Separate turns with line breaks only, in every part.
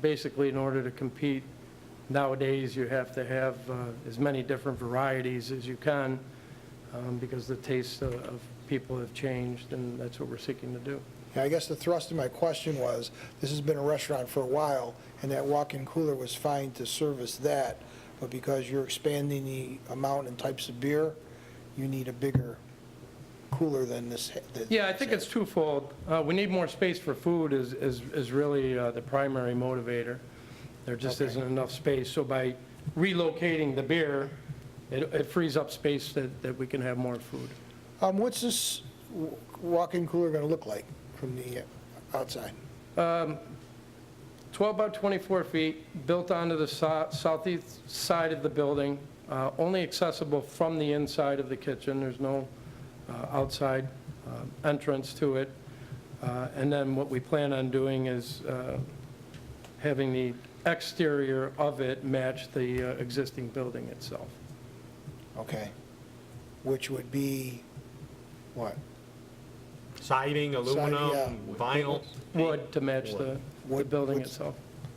basically, in order to compete nowadays, you have to have uh, as many different varieties as you can, um, because the tastes of- of people have changed, and that's what we're seeking to do.
Yeah, I guess the thrust of my question was, this has been a restaurant for a while, and that walk-in cooler was fine to service that, but because you're expanding the amount and types of beer, you need a bigger cooler than this. that-
Yeah, I think it's twofold. Uh, We need more space for food is, is is really uh, the primary motivator. There just
Okay.
isn't enough space, so by relocating the beer, it it frees up space that, that we can have more food.
Um, what's this w- walk-in cooler gonna look like from the outside?
12 by 24 feet, built onto the so- southeast side of the building, uh, only accessible from the inside of the kitchen. There's no uh, outside um, entrance to it. Uh, And then what we plan on doing is uh, having the exterior of it match the uh, existing building itself.
Okay, which would be, what?
Siding, aluminum,
yeah.
vinyl.
Wood to match the, the
Wood-
building
wood-
itself.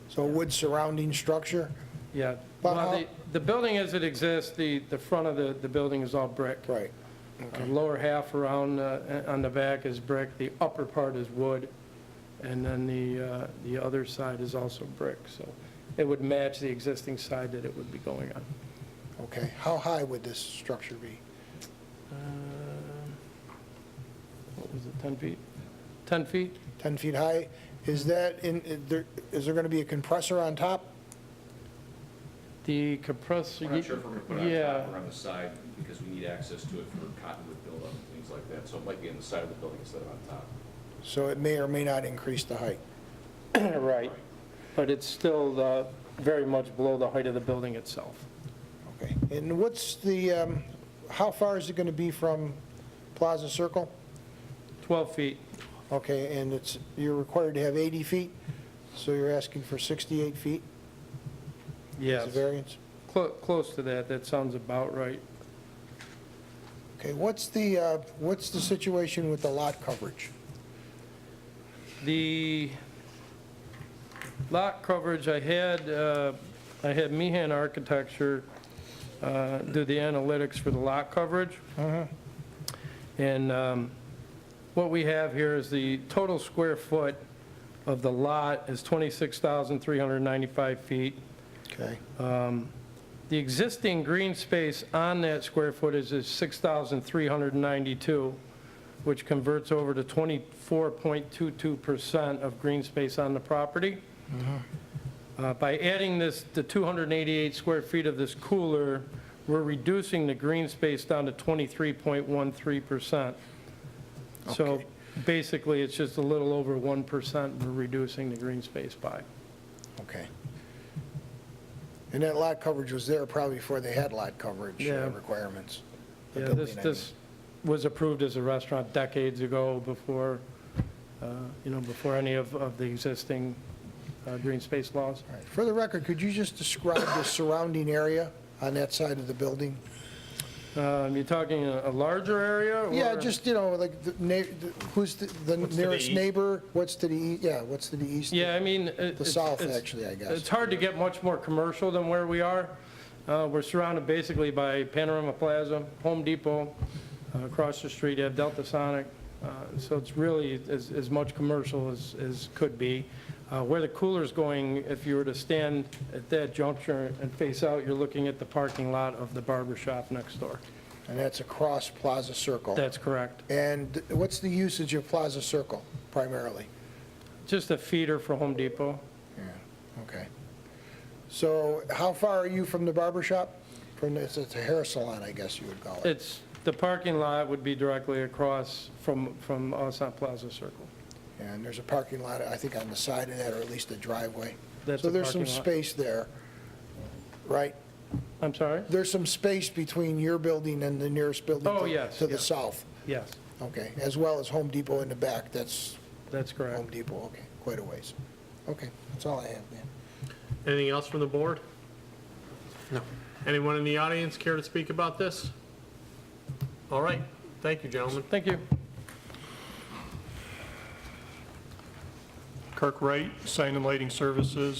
So a wood surrounding structure?
Yeah.
But
Well,
how-
the, the building as it exists, the, the front of the, the building is all brick.
Right.
Uh, Lower half around, uh, on the back is brick, the upper part is wood, and then the, uh, the other side is also brick, so it would match the existing side that it would be going on.
Okay, how high would this structure be?
What was it, 10 feet? 10 feet?
10 feet high? Is that in, is there- is there going to be a compressor on top?
The compressor...
We're not sure if we're gonna put it on
Yeah,
top or on the side, because we need access to it for cottonwood buildup and things like that, so it might be on the side of the building instead of on top.
So it may or may not increase the height.
right, but it's still uh, very much below the height of the building itself.
Okay. And what's the, um, how far is it going to be from Plaza Circle?
12 feet,
Okay, and it's, you're required to have 80 feet, so you're asking for 68 feet as a
yes,
variance?
Clo- close to that, that sounds about right.
Okay, what's the, uh, what's the situation with the lot coverage?
The lot coverage, I had, uh, I had Meehan Architecture uh, do the analytics for the lot coverage. And um, what we have here is the total square foot of the lot is 26,395 feet.
Okay,
The existing green space on that square footage is 6,392, which converts over to 24.22% of green space on the property. Uh, By adding this, the 288 square feet of this cooler, we're reducing the green space down to 23.13%. So
Okay.
basically, it's just a little over 1% we're reducing the green space by.
okay. And that lot coverage was there probably before they had lot coverage
Yeah.
uh, requirements. the
Yeah, this,
building, I mean.
this was approved as a restaurant decades ago before, uh, you know, before any of, of the existing uh, green space laws.
All right. For the record, could you just describe the surrounding area on that side of the building?
Um, You're talking a a larger area? or-
Yeah, just, you know, like, the na- the- who's the- the
What's to the
nearest
east?
neighbor? What's to the, e- yeah, what's to the east?
Yeah, I mean. it-
The
it's-
south,
it's-
actually, I guess.
It's hard to get much more commercial than where we are. Uh, We're surrounded basically by Panorama Plaza, Home Depot, uh, across the street, you have Delta Sonic. Uh, So it's really as, as much commercial as, as could be. Uh, Where the cooler's going, if you were to stand at that juncture and face out, you're looking at the parking lot of the barber shop next door.
And that's across Plaza Circle.
That's correct.
And what's the usage of Plaza Circle primarily?
Just a feeder for Home Depot.
Yeah. Okay. So how far are you from the barber shop? From, the- it's it's a hair salon, I guess you would call it.
It's, the parking lot would be directly across from, from us on Plaza Circle.
And there's a parking lot, I think, on the side of that, or at least a driveway.
That's
So
a
there's some
parking lot.
space there, right?
I'm sorry?
There's some space between your building and the nearest building.
Oh,
to-
yes,
To the
yes.
south,
Yes,
okay, as well as Home Depot in the back, that's
that's
Home
correct.
Depot, okay, quite a ways. Okay, that's all I have, man.
Anything else from the board? No. Anyone in the audience care to speak about this? All right, thank you, gentlemen.
Thank you.
Kirk Wright, Sign and Lighting Services,